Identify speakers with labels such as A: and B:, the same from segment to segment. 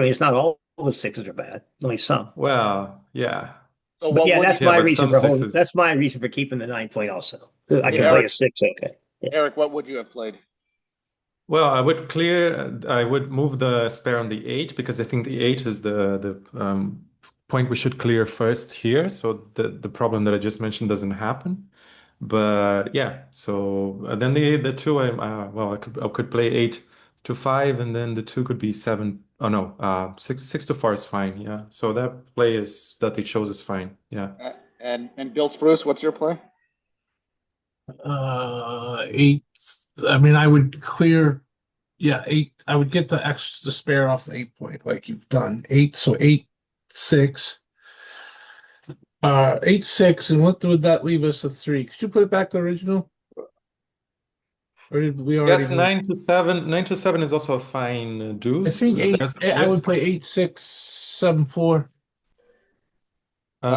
A: I mean, it's not all of the sixes are bad, only some.
B: Well, yeah.
C: So
A: But
C: what
A: yeah,
C: would
A: that's
C: you-
B: Yeah,
A: my
B: but
A: reason
B: some
A: for holding,
B: sixes-
A: that's my reason for keeping the nine point also. I can
C: Yeah.
A: play a six, okay.
C: Eric, what would you have played?
B: Well, I would clear, I would move the spare on the eight because I think the eight is the the um, point we should clear first here. So the the problem that I just mentioned doesn't happen. But yeah, so uh, then the the two, I uh, well, I could I could play eight to five, and then the two could be seven. Oh no, uh, six six to four is fine. Yeah, so that play is that they chose is fine. Yeah.
C: Uh, And, and Bill Spruce, what's your play?
D: Uh, eight. I mean, I would clear. Yeah, eight. I would get the extra the spare off the eight point, like you've done. Eight, so eight, six. Uh, eight, six, and what would that leave us? A three. Could you put it back to original? Or did we already?
B: Yes,
D: move-
B: nine to seven. Nine to seven is also a fine uh,
D: I
B: deuce.
D: think eight.
B: There's a
D: I would
B: risk.
D: play eight, six, seven, four.
C: Uh,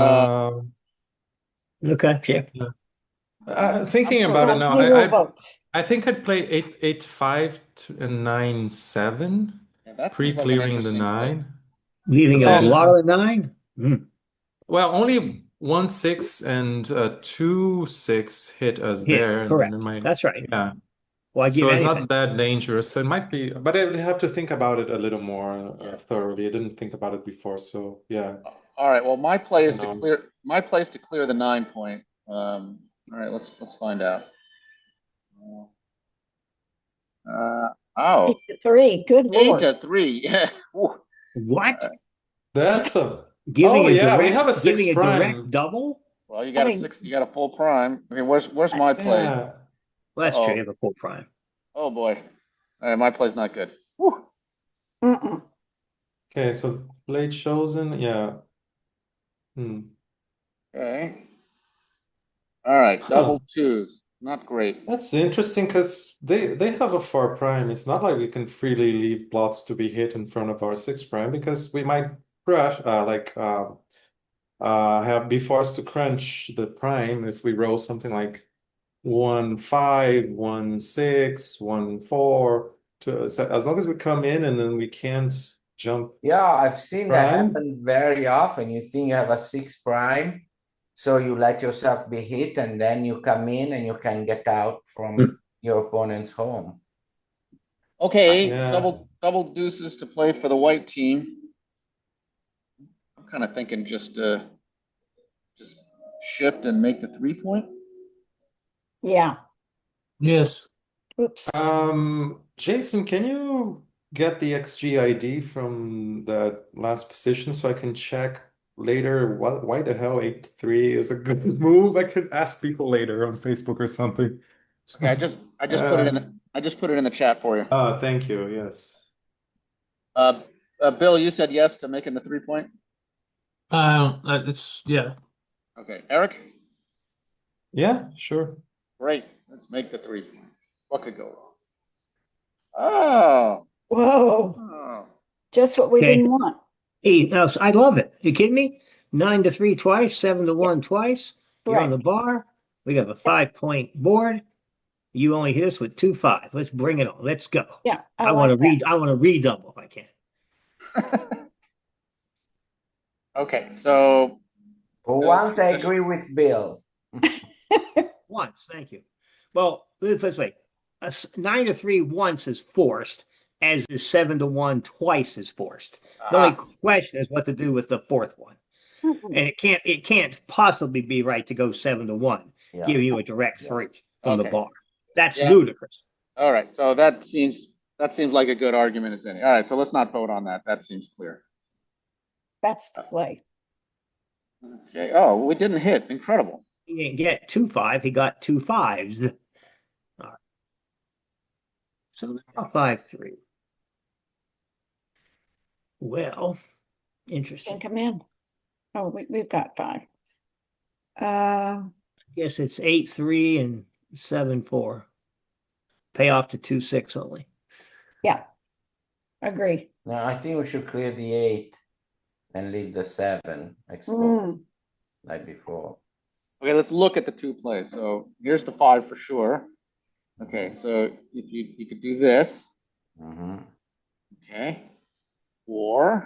B: Um,
A: Okay, yeah.
B: Uh, thinking
E: I'm
B: about it
E: sure
B: now,
E: we will
B: I, I
E: vote.
B: I think I'd play eight eight five t- and nine seven,
C: Yeah, that seems like an
B: pre-clearing the
C: interesting play.
B: nine.
A: Leaving a
B: Then-
A: lot of the nine? Hmm.
B: Well, only one six and uh, two six hit us
A: Yeah,
B: there, and then
A: correct.
B: it might-
A: That's right.
B: yeah.
A: Why
B: So
A: give
B: it's
A: anything?
B: not that dangerous. So it might be, but I would have to think about it a little more uh, thoroughly. I didn't think about it before, so yeah.
C: Uh, All right, well, my play is to
B: Hang on.
C: clear, my play is to clear the nine point. Um, all right, let's, let's find out. Uh, oh,
E: Eight to Three, good
C: eight
E: lord.
C: to three, yeah. Ooh.
A: What?
B: That's a
A: Giving
B: Uh, Oh,
A: a
B: yeah, we
A: direct-
B: have a six
A: giving a direct
B: prime.
A: double?
C: Well, you got a
E: Fine.
C: six, you got a full prime. I mean, where's, where's my play?
B: yeah.
A: Well, that's true.
C: Uh-oh.
A: You have a full prime.
C: Oh, boy. All right, my play's not good. Whew.
E: Mm-mm.
B: Okay, so blade chosen, yeah. Hmm.
C: Okay. All right, double
B: Huh.
C: twos, not great.
B: That's interesting because they they have a four prime. It's not like we can freely leave blots to be hit in front of our six prime because we might crush uh like uh uh have be forced to crunch the prime if we roll something like one five, one six, one four to so as long as we come in and then we can't jump.
F: Yeah, I've seen that
B: Prime?
F: happen very often. You think you have a six prime, so you let yourself be hit, and then you come in and you can get out
A: Hmm.
F: from your opponent's home.
C: Okay,
B: Yeah.
C: double, double deuces to play for the white team. I'm kind of thinking just, uh, just shift and make the three point.
E: Yeah,
D: Yes.
E: oops.
A: Uh,
B: Um, Jason, can you get the XG ID from that last position so I can check later what, why the hell 8-3 is a good move? I could ask people later on Facebook or something.
C: Okay, I just, I just put it in, the- Uh, I just put it in the chat for you.
B: Ah, thank you. Yes.
C: Uh, uh, Bill, you said yes to making the three point?
D: Uh, uh, it's yeah.
C: Okay, Eric?
B: Yeah, sure.
C: Great, let's make the three point. What could go wrong? Oh,
E: Whoa,
C: oh,
E: just what we
A: Okay.
E: didn't want.
A: Eight. no, uh, I love it. You kidding me? Nine to three twice, seven to one twice. You're on
E: Correct.
A: the bar. We have a five point board. You only hit us with two five. Let's bring it on. Let's go.
E: Yeah.
A: I want to
E: like that.
A: read. I want to redouble if I can.
C: okay, so
F: For
C: Yes,
F: once, I
C: yes.
F: agree with Bill.
A: Once, thank you. Well, let's put it this way: a s- nine to three once is forced, as is seven to one twice is forced. The only
C: Ah,
A: question is what to do with the fourth one,
E: Mm-mm.
A: and it can't. It can't possibly be right to go seven to one,
F: Yeah.
A: give you a direct
F: Yeah.
A: three from the
C: Okay.
A: bar. That's
C: Yeah.
A: ludicrous.
C: all right, so that seems, that seems like a good argument as any. All right, so let's not vote on that. That seems clear.
E: That's the play.
C: Okay, oh, we didn't hit. Incredible.
A: He didn't get two five. He got two fives. All right. So they're all five three. Well,
E: Can
A: interesting.
E: come in. Oh, we, we've got five. Uh,
A: Yes, it's eight three and seven four. Pay off to two six only.
E: agree.
F: No, I think we should clear the eight and leave the seven exposed
E: Mm,
F: like before.
C: Okay, let's look at the two plays. So here's the five for sure.
F: Mm-hmm.
C: Okay, so if you, you could do this,
F: hmm
C: okay? Or